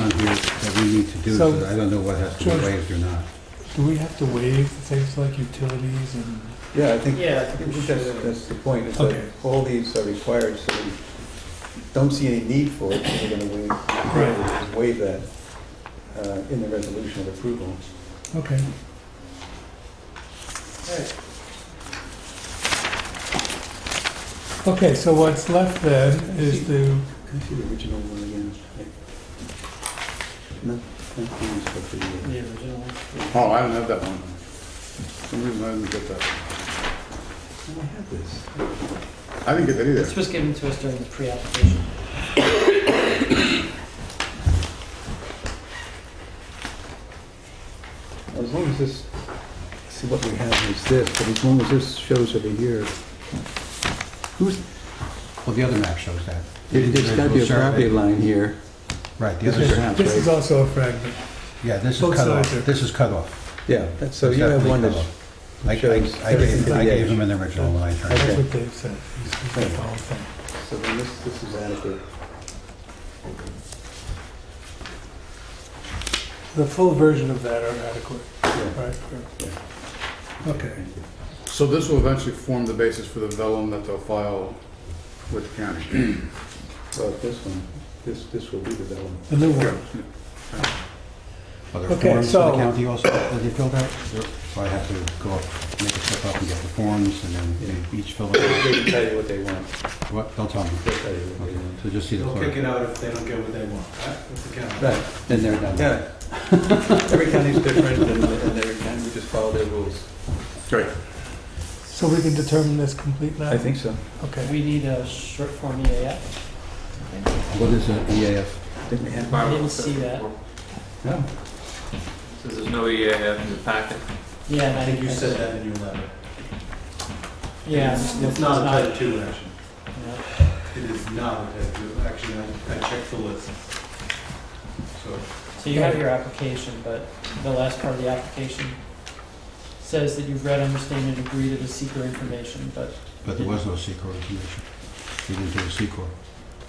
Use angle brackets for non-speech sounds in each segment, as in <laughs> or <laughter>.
on here that we need to do, so So- I don't know what has to be George- waived or not. Do we have to waive things like utilities and, Yeah, I think, Yeah, I I think we think should. that's, that's the point, is Okay. that all these are required, so we don't see any need for it, so we're gonna waive, waive that uh, in the resolution of approval. okay. Okay, so what's left then is to, Can I see the original one again? No, not these, but The the, uh, original one. Oh, I don't have that one. For Some reason I didn't get that. I have this. I didn't get that either. This was given to us during the pre-application. As long as this, see what we have is this, but as long as this shows over here, who's, Well, the other map shows that. there's gotta be a property line here. Right, the This other is map, this is also a fragment. yeah, this is both cut sides are- off, this is cut off. Yeah, that's- so you have Definitely one cut that's off. I, I- shows I gave, I everything. gave him an original when I turned That's it. what Dave said. He's- he's got the whole thing. So then this, this is adequate. The full version of that are adequate, Yeah. right? Okay. So this will eventually form the basis for the vellum that they'll file with the county. Well, this one, this, this will be the vellum. The new one. Are there Okay, forms for the so- county also that they filled out? So I have to go up, make a trip up and get the forms, and then they each fill it They can tell you what they want. out. What, they'll tell me. They'll tell you what they Okay, want. so just see the They'll kick clerk. it out if they don't get what they want, right? That's the count. Right, Then they're done. <laughs> yeah. Every county's different and, and every county, we just follow their rules. Great. So we can determine this complete now? I think so. Okay. We need a short form EAF. What is an E EAF? Didn't we have? I didn't see that. Yeah. So there's no E EAF in the packet? Yeah, and I think you said that in your letter. Yeah. It's it's not a type two action. yeah. It is not a type two action. I, I checked the list. So So you have your application, but the last part of the application says that you've read, understand, and agree to the seeker information, but, But there was no secret information. They didn't do a secret.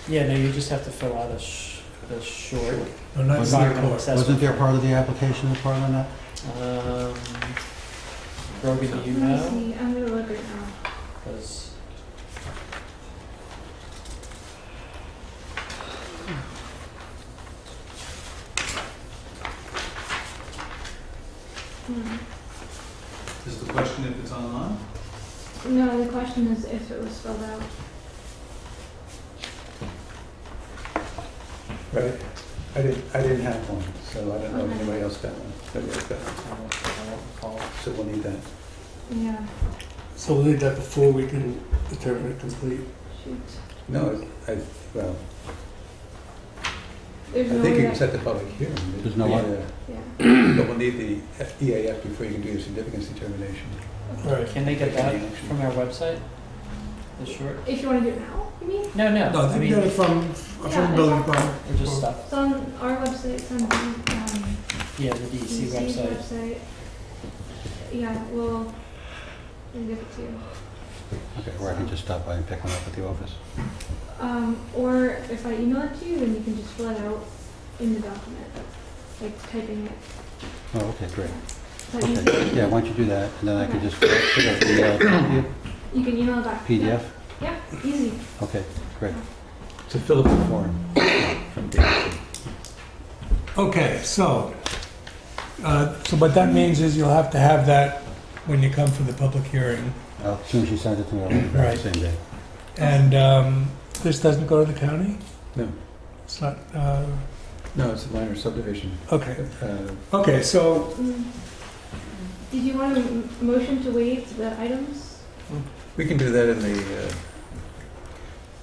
yeah, no, you just have to fill out a sh- the short No, not environmental Seacor. assessment. Wasn't there part of the application, a part on that? Um, Brogan, do you Let me know? see, I'm gonna look um, right now. 'Cause- Hmm. Mm-hmm. is the question if it's online? No, the question is if it was filled out. Right, I didn't, I didn't have one, so I don't know if anybody else got one. Nobody else got one. So we'll need that. Yeah, So we'll need that before we can determine it complete. shoot. No, I, I- well, I There's no think you way. can set the public hearing. but- There's no one. Yeah, I- Yeah. But we'll need the EAF before you can do your significance determination. Right. Can they get that from our website? The short? If you wanna do it now, you mean? No, no. I mean, we're from, Yeah, it's building on- department. just stuff. It's on our website, it's on the, um, Yeah, the DEC DC's website. website. Yeah, we'll, we'll give it to you. Okay, or I can just stop by and pick one up at the office. Um, or if I email it to you, then you can just fill it out in the document, like typing it. Oh, okay, great. So you Okay, can- yeah, why don't you do that, and then I can just pick up the uh, PDF? You can email it back. PDF? Yeah, yeah, easy. Okay, great. So fill up the form. from Dave. Okay, so, uh, so what that means is you'll have to have that when you come for the public hearing. Uh, As soon as you send it to me, I'll leave it back Right. the same day. And um, this doesn't go to the county? No. It's not, uh, No, it's a minor subdivision. okay. Uh, Okay, so, Mm. Did you want a m- motion to waive the items? We can do that in the, uh,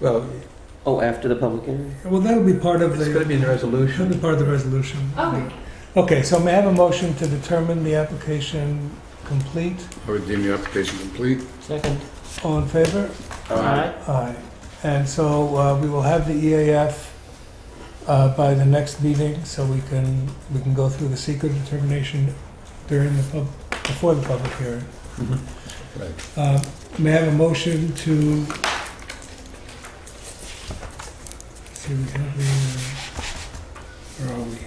well, Oh, after the public hearing? well, that'll be part of it's going to the, be in the that'll be resolution. part of the resolution. Okay. Okay, so may I have a motion to determine the application complete? I would deem your application complete. Second. All in favor? Aye. Aye. And so uh, we will have the EAF uh, by the next meeting, so we can, we can go through the secret determination during the pub, before the public hearing. Mhm. Uh, May I have a motion to? See, we have the, uh, where are we?